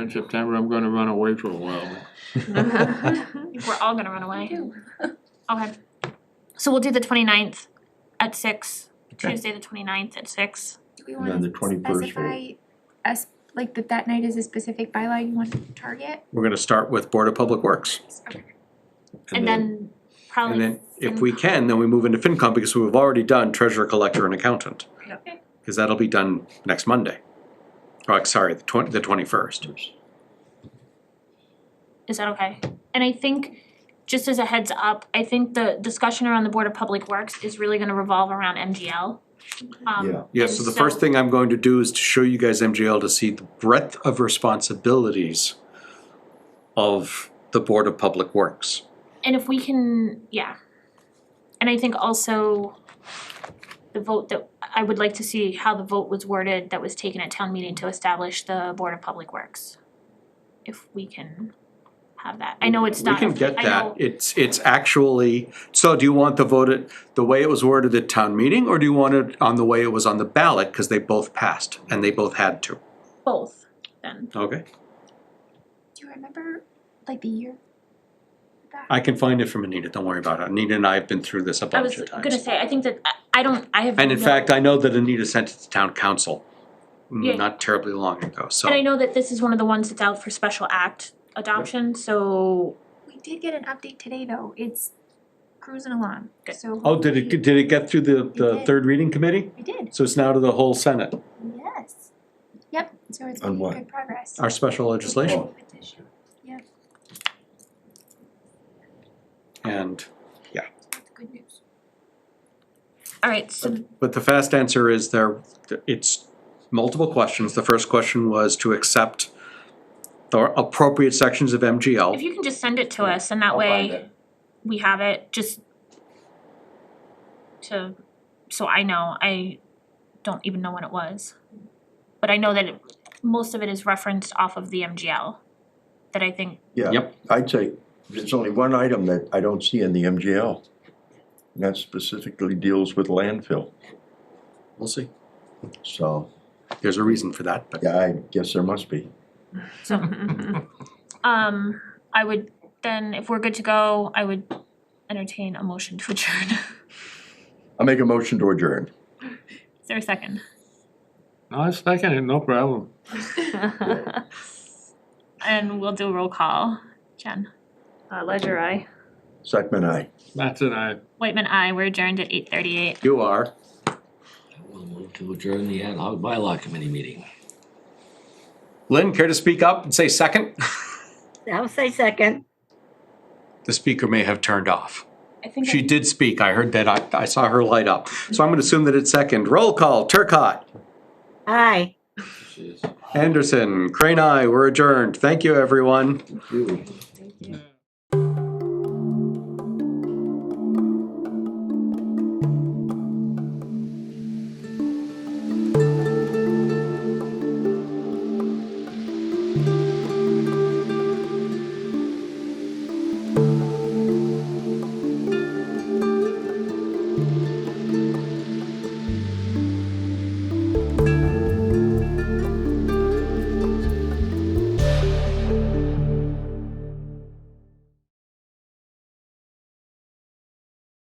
In September, I'm gonna run away for a while. Uh-huh. We're all gonna run away. Okay. So we'll do the 29th at six, Okay. Tuesday the 29th at six. Do we And then wanna the 21st vote. specify us, like that that night is a specific bylaw you want to target? We're gonna start with Board of Public Works. Okay. And then probably. And then, if fin- we can, then we move into FinCom because we've already done treasurer, collector and accountant. Yep. Cause that'll be done next Monday. Oh, sorry, the twenty, the twenty-first. Is that okay? And I think, just as a heads up, I think the discussion around the Board of Public Works is really gonna revolve around MGL. Um, Yeah. Yeah, And so the so- first thing I'm going to do is to show you guys MGL to see the breadth of responsibilities of the Board of Public Works. And if we can, yeah. And I think also the vote that, I would like to see how the vote was worded that was taken at town meeting to establish the Board of Public Works. If we can have that. I know it's We not, I can get that, know, it's, it's actually, so do you want the vote at, the way it was worded at town meeting? Or do you want it on the way it was on the ballot, cause they both passed and they both had to? both then. Okay. Do you remember, like the year? That- I can find it from Anita, don't worry about it, Anita and I have been through this a I bunch was of gonna times. say, I think that, I- I don't, I have And in no- fact, I know that Anita sent it to town council, Yeah. mm, not terribly long ago, so. And I know that this is one of the ones that's out for special act adoption, so We did get an update today, though, it's cruising along, Good. so. Oh, did it, hopefully- did it get through the, the did. third reading committee? We did, So it's now to the whole senate, yes, yep, so it's On making what? good progress. our special legislation, Petition. and, That's good news. Alright, so but the fast answer is there, it's multiple questions. The first question was to accept the appropriate sections of if MGL. you can just send it to us and that I'll find way it. we have it, just to, so I know, I don't even know when it was. But I know that it- most of it is referenced off of the MGL, that I think, Yeah, Yep. I'd say there's only one item that I don't see in the MGL. And that specifically deals with landfill, We'll see. so, There's a reason for that, but yeah, I guess there must be. so. Um, I would, then if we're good to go, I would entertain a motion to adjourn. I'll make a motion to adjourn. Is there a second? No, it's like, it, no problem. And we'll do a roll call. Jen? Uh, Ledger eye. Second, I. That's it, I. Whitman, I. We're adjourned at eight thirty-eight. you are. We'll move to adjourn the ad hoc bylaw committee meeting. Lynn, care to speak up and say second? I'll say second. The speaker may have turned off. I think She did speak, I heard that, I, I saw her light up. So I'm gonna assume that it's second. Roll call, Turcott. Aye. This is- Anderson, Crane, I, we're adjourned. Thank you, everyone. Thank you.